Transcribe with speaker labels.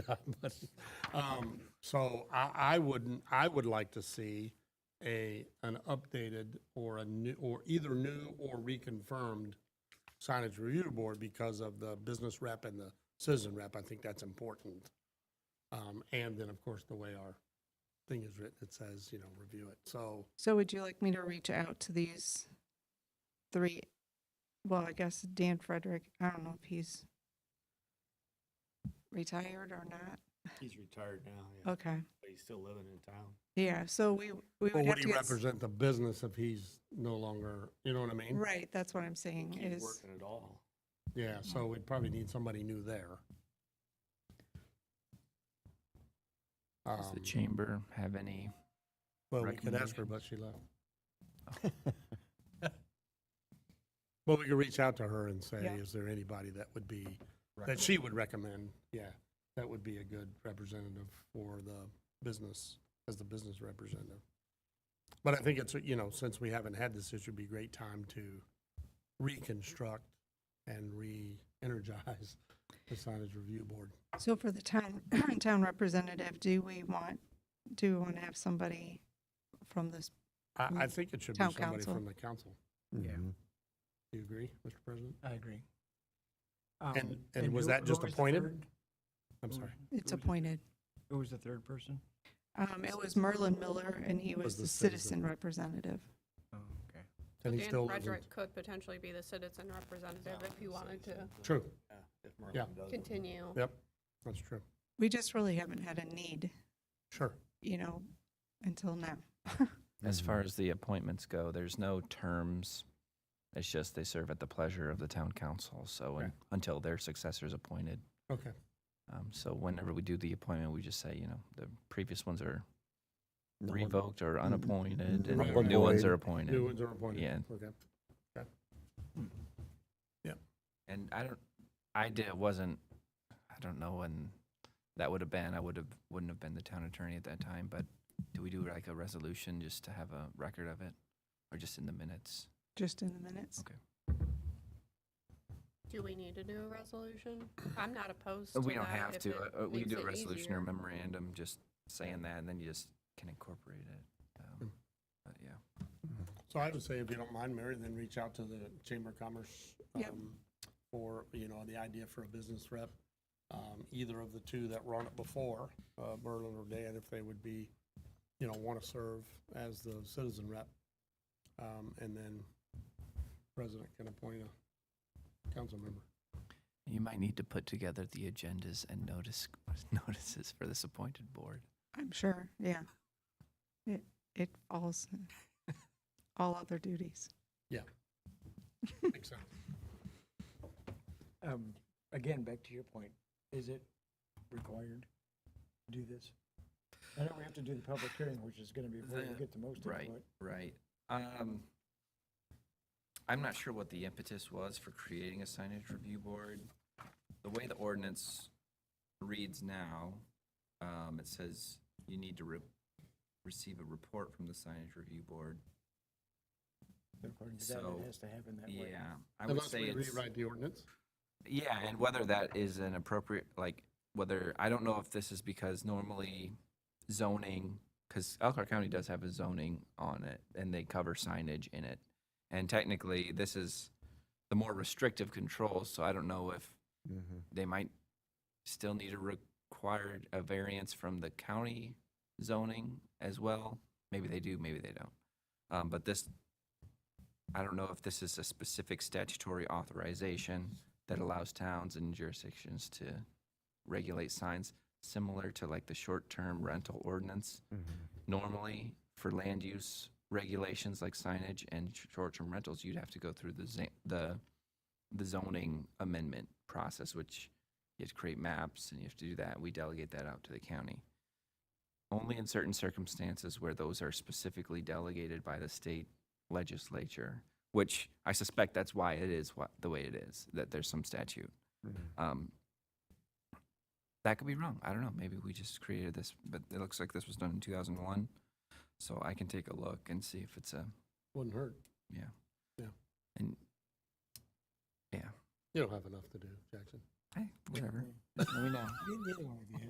Speaker 1: time, but, um, so I, I wouldn't, I would like to see a, an updated or a new, or either new or reconfirmed signage review board because of the business rep and the citizen rep. I think that's important. Um, and then, of course, the way our thing is written, it says, you know, review it. So,
Speaker 2: So would you like me to reach out to these three? Well, I guess Dan Frederick, I don't know if he's retired or not.
Speaker 3: He's retired now, yeah,
Speaker 2: Okay,
Speaker 3: but he's still living in town.
Speaker 2: yeah, so we, we
Speaker 1: but
Speaker 2: would have
Speaker 1: would
Speaker 2: to
Speaker 1: he
Speaker 2: get, s-
Speaker 1: represent the business if he's no longer, you know what I mean?
Speaker 2: right, that's what I'm saying
Speaker 3: He's
Speaker 2: is,
Speaker 3: working at all.
Speaker 1: Yeah, so we'd probably need somebody new there.
Speaker 4: Does the
Speaker 1: Um,
Speaker 4: chamber have any?
Speaker 1: Well, we could ask her,
Speaker 4: recommendation?
Speaker 1: but she left. But we could reach out to her and say,
Speaker 2: Yeah.
Speaker 1: is there anybody that would be, that she would recommend? Yeah, that would be a good representative for the business, as the business representative. But I think it's, you know, since we haven't had this, it would be a great time to reconstruct and re-energize the signage review board.
Speaker 2: so for the town, town representative, do we want, do we want to have somebody from this?
Speaker 1: I, I think it should be
Speaker 2: Mm. Town
Speaker 1: somebody
Speaker 2: council.
Speaker 1: from the council.
Speaker 5: Yeah.
Speaker 1: Do you agree, Mr. President?
Speaker 5: I agree.
Speaker 1: And,
Speaker 5: Um,
Speaker 1: and was
Speaker 5: who-
Speaker 1: that
Speaker 5: who
Speaker 1: just
Speaker 5: was the
Speaker 1: appointed?
Speaker 5: third?
Speaker 1: I'm
Speaker 2: Mm.
Speaker 5: Who-
Speaker 1: sorry.
Speaker 5: who was
Speaker 2: It's
Speaker 5: the-
Speaker 2: appointed.
Speaker 5: Who was the third person?
Speaker 2: Um, it was Merlin Miller and he was
Speaker 1: Was
Speaker 2: the
Speaker 1: the
Speaker 2: citizen
Speaker 1: citizen.
Speaker 2: representative.
Speaker 5: Oh, okay.
Speaker 1: And he
Speaker 6: Dan
Speaker 1: still lives in-
Speaker 6: Frederick could potentially be the citizen representative if you wanted to
Speaker 1: True,
Speaker 3: uh, Yeah, if
Speaker 1: Yeah.
Speaker 3: Merlin does.
Speaker 6: continue.
Speaker 1: yep, that's true.
Speaker 2: We just really haven't had a need,
Speaker 1: Sure.
Speaker 2: you know, until now.
Speaker 4: As far
Speaker 1: Mm-hmm.
Speaker 4: as the appointments go, there's no terms. It's just they serve at the pleasure of the town council. So
Speaker 1: Okay.
Speaker 4: un- until their successor is appointed.
Speaker 1: Okay,
Speaker 4: Um, so whenever we do the appointment, we just say, you know, the previous ones are revoked or unappointed, and
Speaker 1: Mm-hmm. Right,
Speaker 4: new ones
Speaker 1: right.
Speaker 4: are appointed.
Speaker 1: new ones are appointed.
Speaker 4: Yeah.
Speaker 1: Okay.
Speaker 4: And I don't, I did wasn't, I don't know when that would have been. I would have wouldn't have been the town attorney at that time. But do we do like a resolution just to have a record of it, or just in the minutes?
Speaker 2: Just in the minutes.
Speaker 6: Do we need to do a resolution? I'm not opposed to that.
Speaker 4: Uh, We don't have
Speaker 6: if
Speaker 4: to.
Speaker 6: it
Speaker 4: uh, uh, We
Speaker 6: makes
Speaker 4: do a
Speaker 6: it
Speaker 4: resolution
Speaker 6: easier.
Speaker 4: or memorandum, just saying that, and then you just can incorporate it.
Speaker 1: Mm.
Speaker 4: um, But yeah.
Speaker 1: So I would say if you don't mind, Mary, then reach out to the Chamber of Commerce.
Speaker 2: Yep.
Speaker 1: um, For, you know, the idea for a business rep, um, either of the two that were on it before, uh, Merlin or Dan, if they would be, you know, want to serve as the citizen rep. Um, and then President can appoint a council member.
Speaker 4: You might need to put together the agendas and notice notices for this appointed board.
Speaker 2: I'm sure, yeah. It, it falls, in all other duties.
Speaker 1: Makes sense.
Speaker 5: Um, Again, back to your point, is it required to do this? I know we have to do the public hearing, which is going to be where you
Speaker 4: The-
Speaker 5: get the most
Speaker 4: right.
Speaker 5: input.
Speaker 4: Right. Um, I'm not sure what the impetus was for creating a signage review board. The way the ordinance reads now, um, it says you need to re- receive a report from the signage review board.
Speaker 5: According to that,
Speaker 4: So,
Speaker 5: it has to happen that way.
Speaker 4: Yeah, I would
Speaker 1: Unless
Speaker 4: say
Speaker 1: we
Speaker 4: it's.
Speaker 1: rewrite the ordinance.
Speaker 4: Yeah, and whether that is an appropriate, like, whether, I don't know if this is because normally zoning, because Elkhart County does have a zoning on it, and they cover signage in it. And technically, this is the more restrictive control, so I don't know if they might still need a required, a variance from the county zoning as well. Maybe they do, maybe they don't. Um, but this, I don't know if this is a specific statutory authorization that allows towns and jurisdictions to regulate signs similar to like the short-term rental ordinance normally for land use regulations like signage and sh- short-term rentals, you'd have to go through the za- the the zoning amendment process, which you have to create maps and you have to do that. We delegate that out to the county. Only in certain circumstances where those are specifically delegated by the state legislature, which I suspect that's why it is what, the way it is, that there's some statute. Um, that could be wrong. I don't know. Maybe we just created this, but it looks like this was done in 2001. So I can take a look and see if it's a,
Speaker 1: Wouldn't hurt.
Speaker 4: yeah.
Speaker 1: Yeah.
Speaker 4: And, yeah.
Speaker 1: You don't have enough to do, Jackson.
Speaker 7: Hey, whatever. Let me know.
Speaker 4: Neither one of you.